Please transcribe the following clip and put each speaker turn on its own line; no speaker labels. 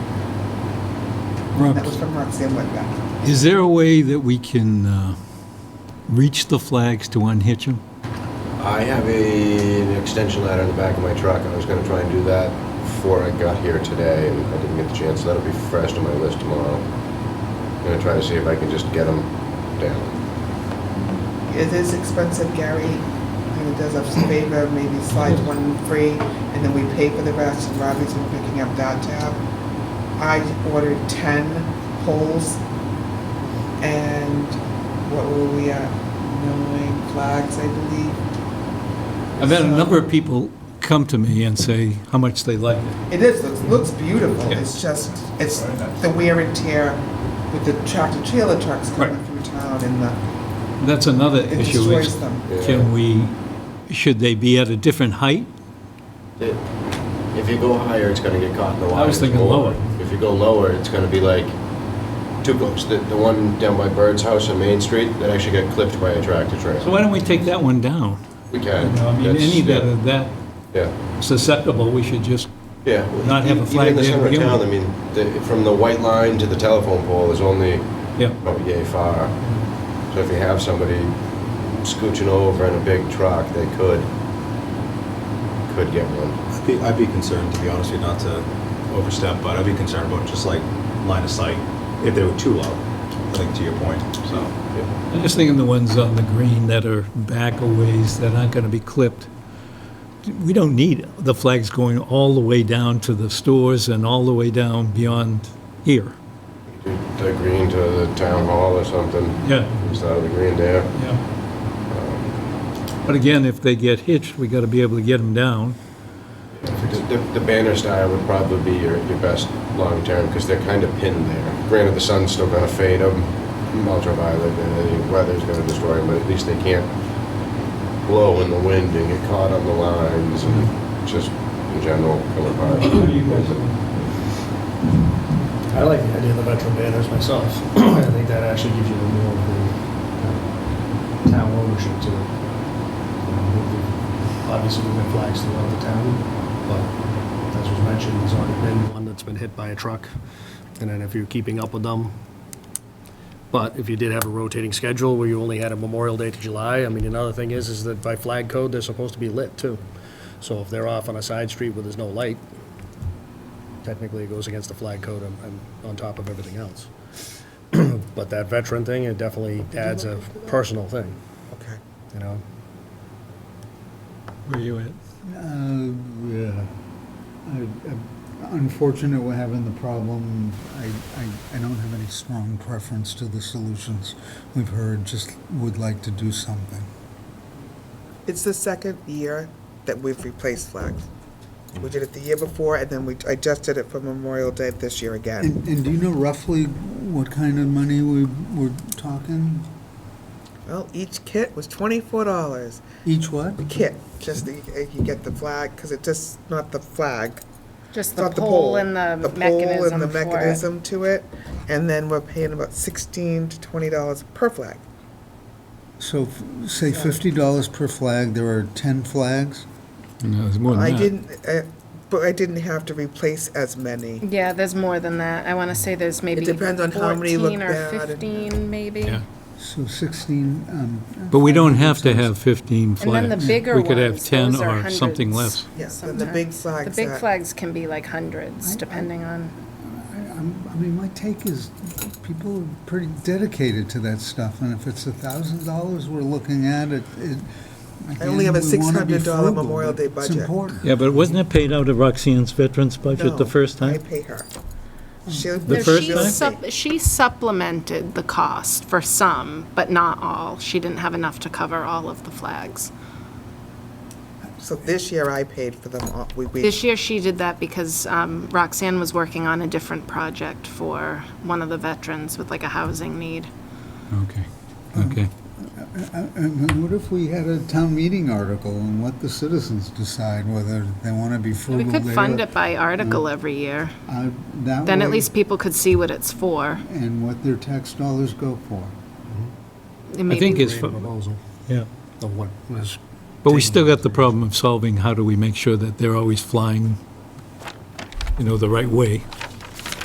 That was
Robert,
from Roxanne Woodruff.
is there a way that we can uh, reach the flags to unhitch them?
I have a, an extension ladder in the back of my truck. I was going to try and do that before I got here today, and I didn't get the chance. So that'll be fresh on my list tomorrow. I'm going to try to see if I can just get them down.
It is expensive, Gary, and it does us a favor, maybe slide one free, and then we pay for the rest, and Robbie's been picking up that tab. I ordered ten poles, and what were we at, nine flags, I believe.
I've had a number of people come to me and say how much they like it.
It is, it looks beautiful,
Yeah.
it's just, it's the wear and tear with the tractor trailer trucks coming
Right.
through town and the,
That's another
it
issue
destroys
is,
them.
can we, should they be at a different height?
It- If you go higher, it's going to get caught in the wire.
I was thinking lower.
If you go lower, it's going to be like two goats. The, the one down by Bird's house on Main Street that actually got clipped by a tractor trailer.
So why don't we take that one down?
we
You
can.
know, I mean,
That's-
any that
yeah.
are that
Yeah.
susceptible, we should just,
Yeah. well,
Not have a
e-
flag
Even in the
there to
center of
begin
town, I
with.
mean, the- from the white line to the telephone pole is only
yeah.
probably yay far. So if you have somebody scooching over in a big truck, they could, could get one.
I'd be, I'd be concerned, to be honest with you, not to overstep, but I'd be concerned about just like line of sight, if they were too low, I think to your point, so.
Yeah.
I'm just thinking the ones on the green that are back a ways that aren't going to be clipped. We don't need the flags going all the way down to the stores and all the way down beyond here.
Do The green to the town hall or something,
Yeah,
instead of the green there.
yeah. But again, if they get hitched, we got to be able to get them down.
The, the banner style would probably be your, your best long-term, because they're kind of pinned there. Granted, the sun's still gonna fade them, ultraviolet, and the weather's gonna destroy them, but at least they can't blow in the wind and get caught on the lines and just in general come apart.
I like the idea of the veteran banners myself. I think that actually gives you the more of the uh, town ownership to it. You know, with the- Obviously, we've been flags throughout the town, but as was mentioned, there's already been one that's been hit by a truck. And then if you're keeping up with them, but if you did have a rotating schedule where you only had a Memorial Day to July, I mean, another thing is, is that by flag code, they're supposed to be lit too. So if they're off on a side street where there's no light, technically it goes against the flag code and- and on top of everything else. But that veteran thing, it definitely adds a personal thing,
Okay.
you know?
Where you at?
Uh, yeah. I- I'm Unfortunate we're having the problem. I, I, I don't have any strong preference to the solutions we've heard, just would like to do something.
It's the second year that we've replaced flags. We did it the year before, and then we, I just did it for Memorial Day this year again.
Mm.
And, and do you know roughly what kind of money we, we're talking?
Well, each kit was twenty-four dollars.
Each what?
Kit, just the, if you get the flag, because it just, not the flag.
Just
it's
the
not
pole and the
pole and the
mechanism for it.
mechanism to it. And then we're paying about sixteen to twenty dollars per flag.
So, f- say fifty dollars per flag, there are ten flags?
No, there's more than
I
that.
didn't, uh, but I didn't have to replace as many.
Yeah, there's more than that. I want to say there's maybe
depends on how many look
14 or
bad and-
15, maybe.
Yeah.
So sixteen, um.
But we don't have to have 15
And then
flags.
the bigger ones,
We could have 10
those are
or something
hundreds
less.
Yes, and the big
sometimes.
flags
The big
that-
flags can be like hundreds,
I- I-
depending on,
I- I'm- I mean, my take is people are pretty dedicated to that stuff, and if it's a thousand dollars we're looking at, it, it.
I only have a
again, we wanna be
$600
frugal,
Memorial
but
Day
It's
budget.
important.
Yeah, but wasn't it paid out of Roxanne's veterans budget the
No,
first
I
time?
pay her. She'll-
The
No,
first
she
time?
sup- She supplemented the cost for some, but not all. She didn't have enough to cover all of the flags.
So this year I paid for them all. We, we,
This year, she did that because um, Roxanne was working on a different project for one of the veterans with like a housing need.
Mm-hmm. Okay, okay.
Uh, And what if we had a town meeting article and let the citizens decide whether they wanna be
We
frugal there?
could fund it by article every year.
uh, that
Then at
way,
least people could see what it's for.
And what their tax dollars go for.
I think it's,
Great proposal
yeah.
of what was
But we still got the problem of solving, how do we make sure that they're always flying, you know, the right way?